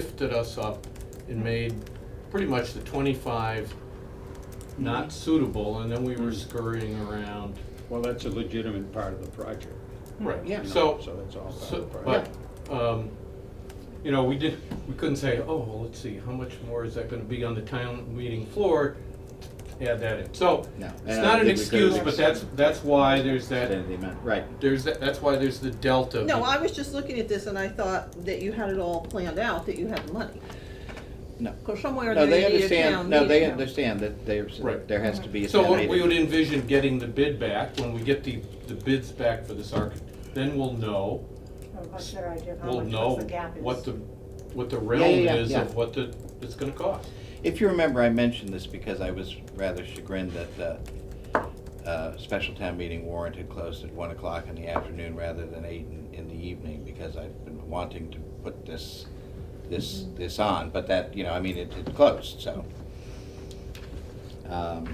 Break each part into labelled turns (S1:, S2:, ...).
S1: lifted us up and made pretty much the twenty-five not suitable, and then we
S2: Hmm.
S1: were scurrying around.
S3: Well, that's a legitimate part of the project.
S1: Right,
S3: you know,
S1: so,
S3: So that's all part
S1: so,
S3: of the
S1: but,
S3: project.
S1: um, you know, we did, we couldn't say, oh, well, let's see, how much more is that gonna be on the town meeting floor? Add that in, so,
S2: No, and I
S1: it's
S2: don't
S1: not an
S2: think we could've
S1: excuse, but that's, that's why there's that,
S2: Then they meant- Right,
S1: there's, that. that's why there's the delta.
S4: No,
S1: be-
S4: I was just looking at this and I thought that you had it all planned out, that you had the money.
S2: no.
S4: Because somewhere
S2: No, they
S4: there you need a
S2: understand,
S4: town
S2: no, they
S4: meeting.
S2: understand that there's,
S1: Right.
S2: there has to be a
S1: So
S2: town
S1: what we would
S2: meeting.
S1: envision getting the bid back, when we get the, the bids back for this arc, then we'll know,
S5: Or what's their idea of how
S1: we'll
S5: much, what's
S1: know
S5: the gap is?
S1: what the, what the
S2: Yeah,
S1: realm
S2: yeah, yeah,
S1: is
S2: yeah.
S1: of what the, it's gonna cost.
S2: If you remember, I mentioned this because I was rather chagrined that the uh, special town meeting warrant had closed at one o'clock in the afternoon rather than eight in, in the evening because I've been wanting to put this, this, this on, but that, you know, I mean, it, it closed, so. Um,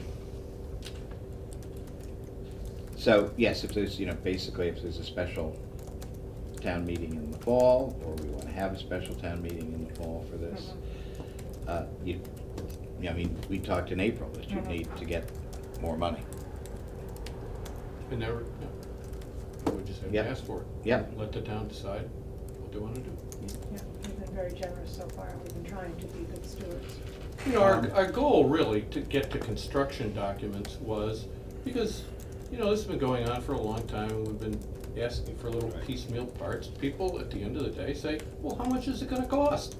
S2: So, yes, if there's, you know, basically if there's a special town meeting in the fall, or we wanna have a special town meeting in the fall for this, uh, you, yeah, I mean, we talked in April that you
S5: Mhm.
S2: need to get more money.
S1: And never, we just have to
S2: Yeah.
S1: ask for it.
S2: Yeah.
S1: Let the town decide what they wanna do.
S5: Yeah, We've been very generous so far, we've been trying to be good stewards.
S1: You know, our,
S2: Um,
S1: our goal really to get to construction documents was, because, you know, this has been going on for a long time, and we've been asking for little
S3: Right.
S1: piecemeal parts. People, at the end of the day, say, well, how much is it gonna cost?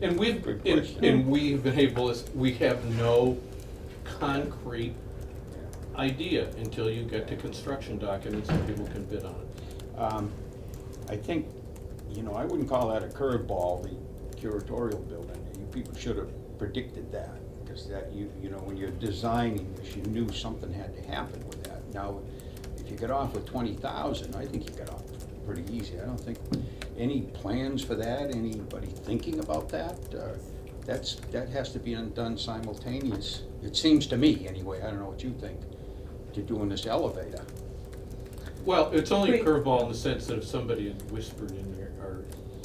S1: And we've,
S3: Good
S1: and,
S3: question.
S1: and we've been able, to s- we have no concrete idea until you get to construction documents and people can bid on it.
S3: Um, I think, you know, I wouldn't call that a curveball, the curatorial building. You people should have predicted that, because that, you, you know, when you're designing this, you knew something had to happen with that. Now, if you get off with twenty thousand, I think you got off pretty easy. I don't think, any plans for that, anybody thinking about that? Uh, That's, that has to be done simultaneous, it seems to me, anyway, I don't know what you think, to doing this elevator.
S1: Well, it's only a
S4: Wait.
S1: curveball in the sense that if somebody had whispered in your, our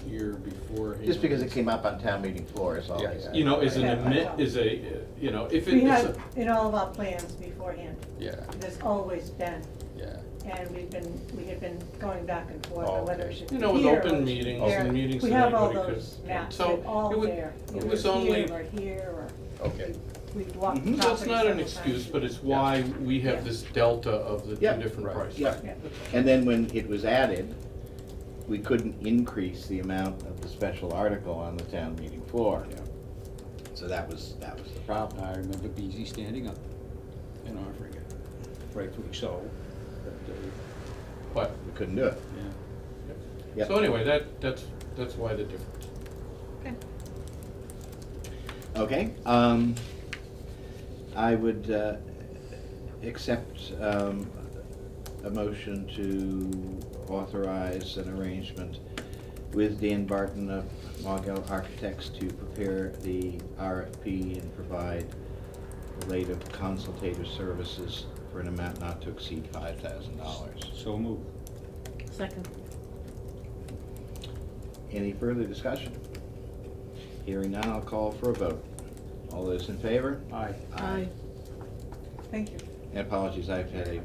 S1: ear beforehand.
S2: Just because it came up on town meeting floor is all.
S3: Yeah,
S2: I
S3: yeah.
S2: said.
S1: you know, is an
S5: Yeah.
S1: admit, is a, uh, you know, if it
S5: We
S1: is
S5: had
S1: a,
S5: in all of our plans beforehand,
S3: Yeah,
S5: there's always been,
S3: yeah.
S5: and we've been, we had been going back and forth
S3: Oh,
S5: on whether
S3: okay.
S5: it should be
S1: you
S5: here
S1: know,
S5: or
S1: with
S5: it should
S1: open
S5: be
S1: meetings
S5: there.
S1: and meetings
S5: We
S1: that
S5: have all
S1: anybody could.
S5: those maps,
S1: so
S5: they're all
S1: it would-
S5: there,
S1: It
S5: either
S1: was only,
S5: here or here, or
S3: Okay.
S5: we've walked
S2: Mhm.
S5: the property
S1: so it's not an
S5: several
S1: excuse,
S5: times.
S1: but it's why we have this delta of the two
S2: Yeah.
S1: different
S3: Right.
S1: prices.
S2: Yeah,
S5: Yeah.
S2: and then when it was added, we couldn't increase the amount of the special article on the town meeting floor.
S3: Yeah.
S2: So that was, that was the problem.
S3: I remember BZ standing up and offering it, rightfully so. but, uh,
S1: But,
S2: We couldn't do it.
S3: yeah.
S2: Yeah.
S1: so anyway, that, that's, that's why the difference.
S4: Okay.
S2: Okay, um, I would, uh, accept, um, a motion to authorize an arrangement with Dan Barton of Mogul Architects to prepare the RFP and provide related consultative services for an amount not to exceed five thousand dollars.
S3: So moved.
S4: Second.
S2: Any further discussion? Hearing none, I'll call for a vote. All those in favor?
S3: Aye.
S5: Thank you.
S2: And apologies, I've had a,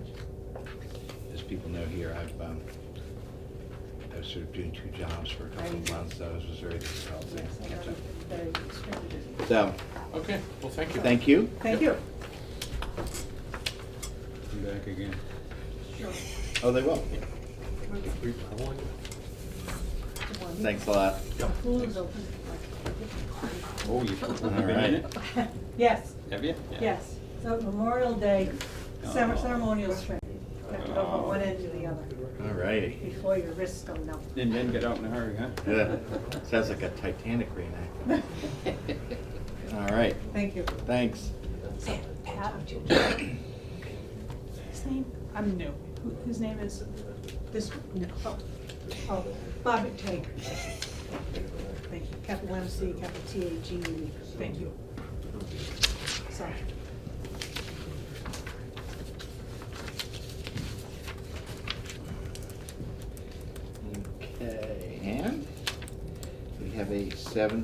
S2: as people know here, I've, um, I was sort of doing two jobs for a couple of months, so it was very difficult
S5: Yes,
S2: to
S5: I
S2: catch
S5: know,
S2: up.
S5: very extremely busy.
S2: So,
S1: Okay, well, thank you.
S2: thank you.
S5: Thank you.
S3: I'm back again.
S2: Oh, they will.
S5: One.
S2: Thanks a lot.
S5: Pool is open.
S3: Oh, you put one
S2: All
S3: in
S2: right.
S3: it?
S5: Yes,
S3: Have you?
S5: yes, so Memorial Day,
S3: Oh.
S5: cere- ceremonial string, you have to go from
S3: Oh.
S5: one end to the other,
S2: All righty.
S5: before your wrists go numb.
S3: And then get out in a hurry, huh?
S2: Yeah. Sounds like a Titanic reenactment. All right,
S5: Thank you.
S2: thanks.
S5: His name, I'm new, Who- whose name is this? No. Oh, Bobby Tager. Thank you, capital M C, capital T A G E, thank you. Sorry.
S2: Okay, and we have a seven